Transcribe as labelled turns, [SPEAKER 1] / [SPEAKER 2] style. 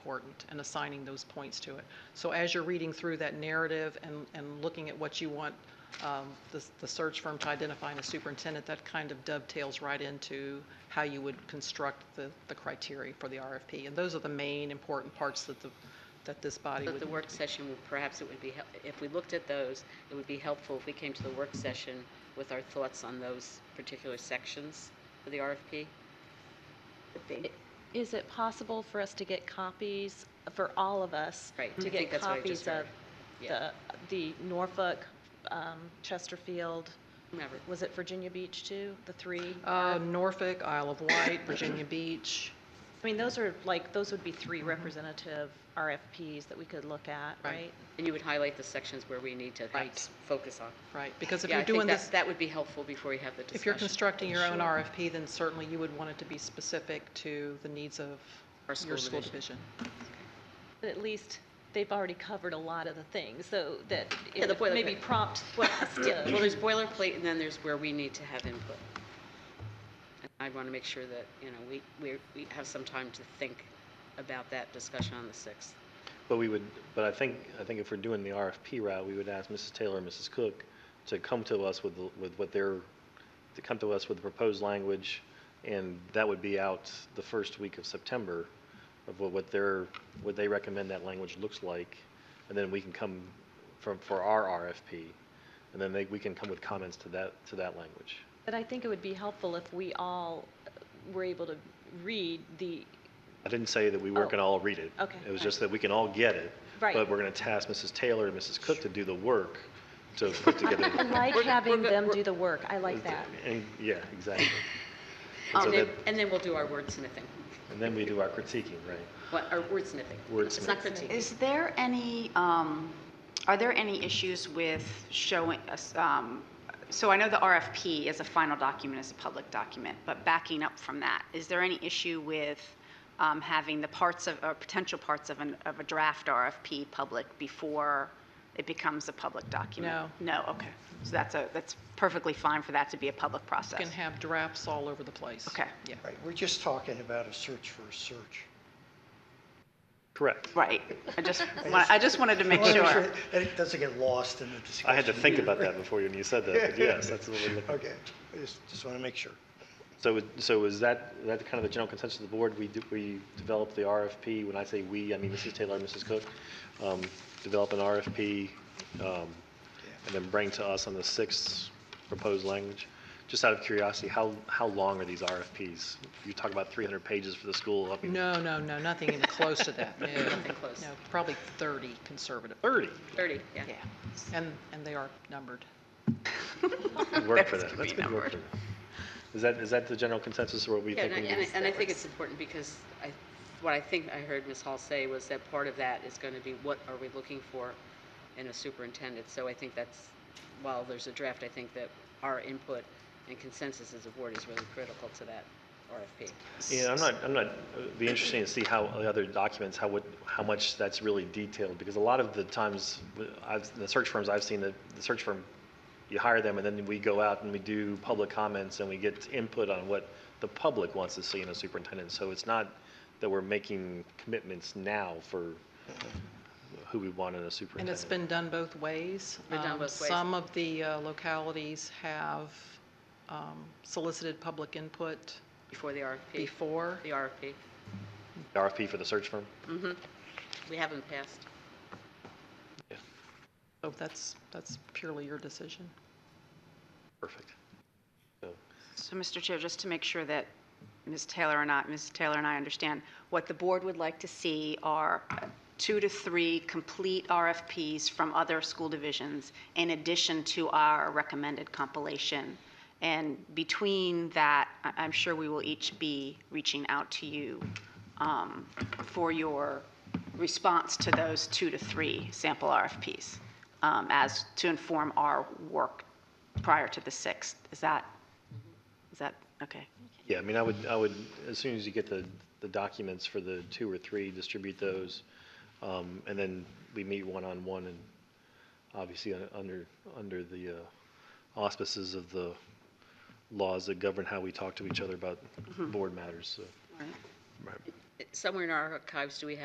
[SPEAKER 1] important and assigning those points to it. So as you're reading through that narrative and, and looking at what you want um, the, the search firm to identify in a superintendent, that kind of dovetails right into how you would construct the, the criteria for the RFP. And those are the main important parts that the, that this body
[SPEAKER 2] But
[SPEAKER 1] would.
[SPEAKER 2] the work session, would perhaps it would be, hel- if we looked at those, it would be helpful if we came to the work session with our thoughts on those particular sections for the RFP.
[SPEAKER 3] Is it possible for us to get copies, for all of us?
[SPEAKER 2] Right, I
[SPEAKER 3] To
[SPEAKER 2] think
[SPEAKER 3] get
[SPEAKER 2] that's what I just
[SPEAKER 3] copies of
[SPEAKER 2] heard.
[SPEAKER 3] the,
[SPEAKER 2] Yeah.
[SPEAKER 3] the Norfolk, um, Chesterfield,
[SPEAKER 2] Whomever.
[SPEAKER 3] was it Virginia Beach too, the three?
[SPEAKER 1] Uh,
[SPEAKER 2] Um,
[SPEAKER 1] Norfolk, Isle of Wight, Virginia Beach.
[SPEAKER 3] I mean, those are like, those would be
[SPEAKER 2] Mm-hmm.
[SPEAKER 3] three representative RFPs that we could look at,
[SPEAKER 1] Right.
[SPEAKER 3] right?
[SPEAKER 2] And you would highlight the sections where we need to
[SPEAKER 1] Right.
[SPEAKER 2] perhaps focus on.
[SPEAKER 1] Right, because if
[SPEAKER 2] Yeah,
[SPEAKER 1] you're
[SPEAKER 2] I think
[SPEAKER 1] doing
[SPEAKER 2] that-
[SPEAKER 1] this,
[SPEAKER 2] That would be helpful before we have the discussion.
[SPEAKER 1] if you're constructing your own RFP, then certainly you would want it to be specific to the needs of your
[SPEAKER 2] Our school
[SPEAKER 1] school
[SPEAKER 2] division.
[SPEAKER 1] division.
[SPEAKER 3] But at least they've already covered a lot of the things, so that
[SPEAKER 2] Yeah,
[SPEAKER 3] it
[SPEAKER 2] the
[SPEAKER 3] would maybe
[SPEAKER 2] boilerplate.
[SPEAKER 3] prompt what us to.
[SPEAKER 2] Well, there's boilerplate, and then there's where we need to have input. And I want to make sure that, you know, we, we, we have some time to think about that discussion on the 6th.
[SPEAKER 4] But we would, but I think, I think if we're doing the RFP route, we would ask Mrs. Taylor and Mrs. Cook to come to us with, the- with what their, to come to us with the proposed language, and that would be out the first week of September, of what, what their, what they recommend that language looks like, and then we can come from, for our RFP, and then they, we can come with comments to that, to that language.
[SPEAKER 3] But I think it would be helpful if we all were able to read the,
[SPEAKER 4] I didn't say that we weren't going to all read it.
[SPEAKER 3] Oh. Okay,
[SPEAKER 4] It was
[SPEAKER 3] right.
[SPEAKER 4] just that we can all get it.
[SPEAKER 3] Right.
[SPEAKER 4] But we're going to task Mrs. Taylor and Mrs. Cook to do the work to put together.
[SPEAKER 3] I like
[SPEAKER 2] We're-
[SPEAKER 3] having
[SPEAKER 2] we're-
[SPEAKER 3] them
[SPEAKER 2] we're-
[SPEAKER 3] do the work, I like that. Oh,
[SPEAKER 4] And, yeah, exactly. And so
[SPEAKER 2] And then,
[SPEAKER 4] that-
[SPEAKER 2] and then we'll do our wordsmithing.
[SPEAKER 4] And then we do our critiquing, right?
[SPEAKER 2] What, our wordsmithing. It's not
[SPEAKER 4] Wordsmith.
[SPEAKER 2] critiquing.
[SPEAKER 5] Is there any, um, are there any issues with showing, us, um, so I know the RFP as a final document is a public document, but backing up from that, is there any issue with um, having the parts of, or potential parts of an, of a draft RFP public before it becomes a public document? No. No, okay. So that's a, that's perfectly fine for that to be a public process?
[SPEAKER 1] You can have drafts all over the place.
[SPEAKER 5] Okay.
[SPEAKER 1] Yeah.
[SPEAKER 6] Right, we're just talking about a search for a search.
[SPEAKER 4] Correct.
[SPEAKER 5] Right. I just, wa- I just wanted to make sure.
[SPEAKER 6] That it doesn't get lost in the discussion.
[SPEAKER 4] I had to think
[SPEAKER 6] here.
[SPEAKER 4] about that before you when you said that, but yes, that's what we're looking
[SPEAKER 6] Okay, I just, just want to make sure.
[SPEAKER 4] So, it- so is that, that kind of the general consensus of the board? We, do- we develop the RFP, when I say we, I mean Mrs. Taylor and Mrs. Cook, um, develop an RFP, um, and then bring to us on the sixth proposed language. Just out of curiosity, how, how long are these RFPs? You talk about 300 pages for the school, I mean,
[SPEAKER 1] No, no, no, nothing even close to that. No,
[SPEAKER 2] Nothing close.
[SPEAKER 1] No, probably 30 conservative.
[SPEAKER 4] 30?
[SPEAKER 2] 30, yeah.
[SPEAKER 1] Yeah, and, and they are numbered.
[SPEAKER 4] Good work for
[SPEAKER 5] That's
[SPEAKER 4] that,
[SPEAKER 5] gonna
[SPEAKER 4] that's
[SPEAKER 5] be
[SPEAKER 4] good work
[SPEAKER 5] numbered.
[SPEAKER 4] for that. Is that, is that the general consensus or what we
[SPEAKER 2] Yeah,
[SPEAKER 4] think?
[SPEAKER 2] and I-
[SPEAKER 4] we
[SPEAKER 2] and I,
[SPEAKER 4] need?
[SPEAKER 2] and I think it's important because I, what I think I heard Ms. Hall say was that part of that is going to be what are we looking for in a superintendent? So I think that's, while there's a draft, I think that our input and consensus as a board is really critical to that RFP.
[SPEAKER 4] Yeah, I'm not, I'm not, it'd be interesting to see how the other documents, how would, how much that's really detailed, because a lot of the times, I've, the search firms I've seen, the, the search firm, you hire them, and then we go out and we do public comments, and we get input on what the public wants to see in a superintendent, so it's not that we're making commitments now for who we want in a
[SPEAKER 1] And
[SPEAKER 4] superintendent.
[SPEAKER 1] it's been done both ways.
[SPEAKER 2] Been done
[SPEAKER 1] Um,
[SPEAKER 2] both ways.
[SPEAKER 1] Some of the uh, localities have um, solicited public input
[SPEAKER 2] Before the RFP,
[SPEAKER 1] before.
[SPEAKER 2] the RFP.
[SPEAKER 4] RFP for the search firm?
[SPEAKER 2] We haven't passed.
[SPEAKER 1] So that's, that's purely your decision.
[SPEAKER 4] Perfect. So-
[SPEAKER 5] So, Mr. Chair, just to make sure that Ms. Taylor and I, Ms. Taylor and I understand, what the board would like to see are two to three complete RFPs from other school divisions in addition to our recommended compilation. And between that, I- I'm sure we will each be reaching out to you um, for your response to those two to three sample RFPs um, as to inform our work prior to the 6th. Is that is that, okay.
[SPEAKER 4] Yeah, I mean, I would, I would, as soon as you get the, the documents for the two or three, distribute those, um, and then we meet one-on-one, and obviously, un- under, under the uh, auspices of the laws that govern how we talk to each other about board matters, so.
[SPEAKER 2] Somewhere in our archives, do we have